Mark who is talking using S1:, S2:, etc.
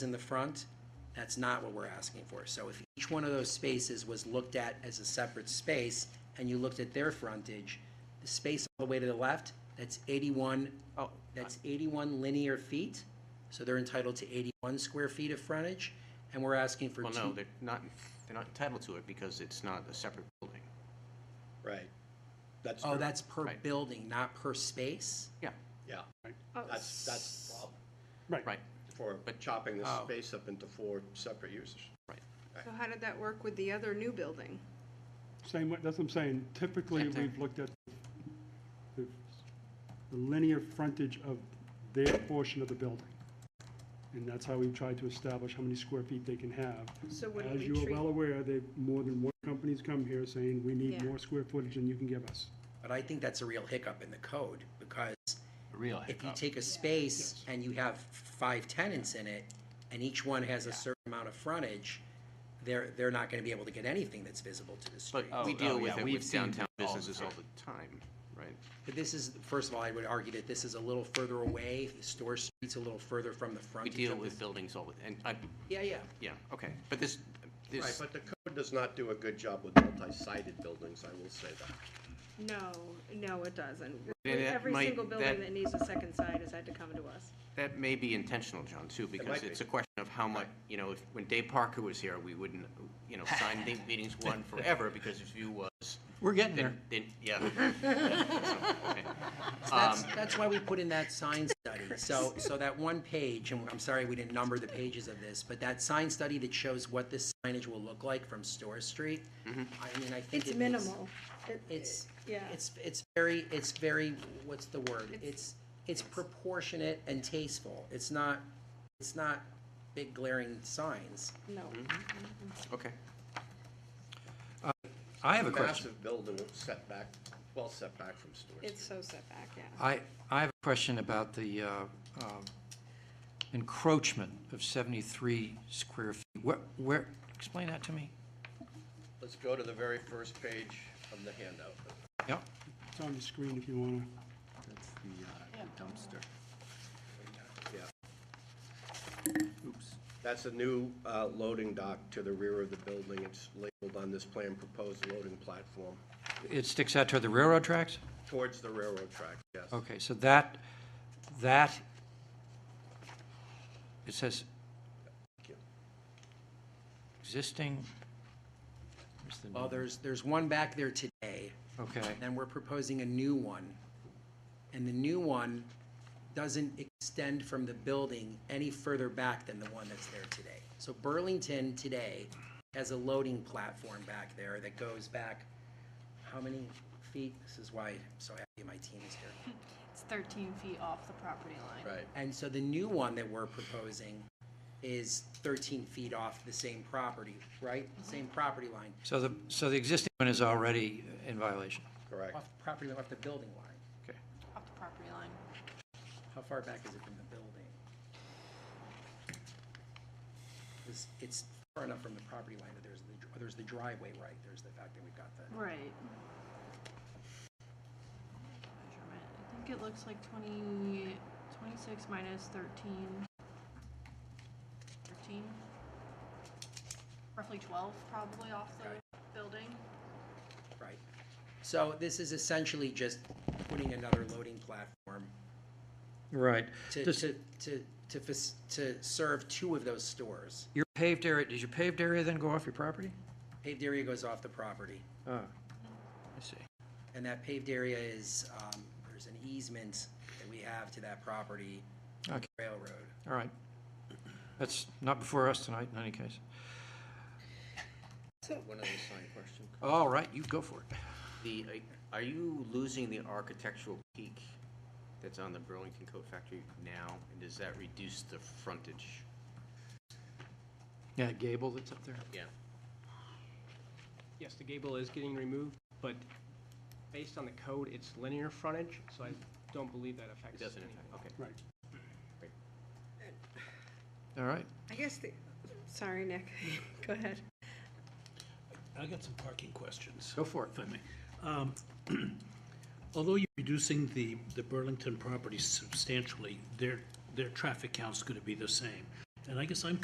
S1: in the front, that's not what we're asking for. So if each one of those spaces was looked at as a separate space, and you looked at their frontage, the space all the way to the left, that's 81, oh, that's 81 linear feet, so they're entitled to 81 square feet of frontage, and we're asking for
S2: Well, no,
S1: two.
S2: they're not, they're not entitled to it because it's not a separate building.
S3: Right. That's,
S1: Oh,
S3: true.
S1: that's per
S2: Right.
S1: building, not per space?
S2: Yeah,
S3: yeah,
S4: Oh,
S3: that's, that's the problem
S2: right,
S3: for
S2: But-
S3: chopping this
S1: Oh.
S3: space up into four separate uses.
S2: right.
S4: So how did that work with the other new building?
S5: Same, way- that's what I'm saying, typically,
S2: Same thing.
S5: we've looked at the the linear frontage of their portion of the building. And that's how we've tried to establish how many square feet they can have.
S4: So what do
S5: As
S4: we
S5: you are
S4: treat-
S5: well aware, they, more than one company's come here saying, we need
S4: Yeah.
S5: more square footage than you can give us.
S1: But I think that's a real hiccup in the code, because
S6: Real
S1: if you
S6: hiccup.
S1: take a space and you have five tenants in it, and each one has a certain amount of frontage, they're, they're not gonna be able to get anything that's visible to the street.
S2: But uh,
S6: Oh,
S2: we
S6: oh,
S2: deal with
S6: yeah,
S2: it
S6: we've
S2: with
S6: seen
S2: downtown
S6: all the
S2: businesses all
S6: time.
S2: the time, right?
S1: But this is, first of all, I would argue that this is a little further away, the store street's a little further from the
S2: We
S1: frontage.
S2: deal
S1: of the-
S2: with buildings all, the- and I,
S1: Yeah, yeah,
S2: yeah, okay, but this,
S3: Right,
S2: this,
S3: but the code does not do a good job with multi-sided buildings, I will say that.
S4: No, no, it doesn't.
S2: Yeah, that
S4: Every
S2: might-
S4: single
S2: that-
S4: building that needs a second side has had to come to us.
S2: that may be intentional, John, too, because
S3: might
S2: it's
S3: be.
S2: a question of how much, you know, if, when Dave Parker was here, we wouldn't, you know, sign the meetings one forever because his view was,
S6: We're getting
S2: then,
S6: there.
S2: then, yeah. Okay.
S1: So that's, that's why we put in that sign study, so, so that one page, and I'm sorry we didn't number the pages of this, but that sign study that shows what this signage will look like from Store Street, I mean, I think
S4: It's
S1: it makes-
S4: minimal. It-
S1: It's,
S4: Yeah.
S1: it's, it's very, it's very, what's the word? It's,
S4: It's-
S1: it's proportionate and tasteful. It's not, it's not big glaring signs.
S4: No.
S2: Okay.
S6: I have a question.
S3: Massive building setback, well setback from stores.
S4: It's so set back, yeah.
S6: I, I have a question about the uh, um, encroachment of 73 square feet. Where, where, explain that to me.
S3: Let's go to the very first page of the handout.
S6: Yep,
S5: It's on the screen if you want to.
S3: That's a new uh, loading dock to the rear of the building. It's labeled on this plan, proposed loading platform,
S6: it sticks out to the railroad tracks?
S3: towards the railroad track, yes.
S6: Okay, so that, that, it says existing, where's the
S1: Well,
S6: name?
S1: there's, there's one back there today,
S6: okay,
S1: and we're proposing a new one. And the new one doesn't extend from the building any further back than the one that's there today. So Burlington today has a loading platform back there that goes back, how many feet? This is why I'm so happy my team is here.
S7: It's 13 feet off the property line.
S3: Right.
S1: And so the new one that we're proposing is 13 feet off the same property, right? Same property line,
S6: so the, so the existing one is already in violation.
S3: Correct.
S1: off the property, off the building line.
S6: Okay.
S7: Off the property line.
S1: How far back is it from the building? It's, it's far enough from the property line that there's the, there's the driveway, right? There's the fact that we've got the,
S7: Right. Measurement. I think it looks like 20, 26 minus 13. 13? Roughly 12 probably off the building.
S1: right? So this is essentially just putting another loading platform
S6: Right.
S1: to,
S6: Does-
S1: to, to, to, fac- to serve two of those stores.
S6: Your paved area, does your paved area then go off your property?
S1: Paved area goes off the property.
S6: Oh, I see.
S1: And that paved area is, um, there's an easement that we have to that property,
S6: Okay.
S1: railroad.
S6: All right. That's not before us tonight, in any case.
S2: One other sign question.
S6: All right, you go for it.
S2: The, uh, are you losing the architectural peak that's on the Burlington Coat Factory now? And does that reduce the frontage?
S6: Yeah, gable that's up there.
S2: Yeah.
S8: Yes, the gable is getting removed, but based on the code, it's linear frontage, so I don't believe that
S2: It
S8: affects
S2: doesn't,
S8: anything.
S2: affect- okay.
S6: All right.
S4: I guess the, sorry, Nick, go ahead.
S9: I got some parking questions.
S6: Go for it.
S9: If I may. Um, Although you're reducing the, the Burlington properties substantially, their, their traffic count's gonna be the same.
S5: and I guess I'm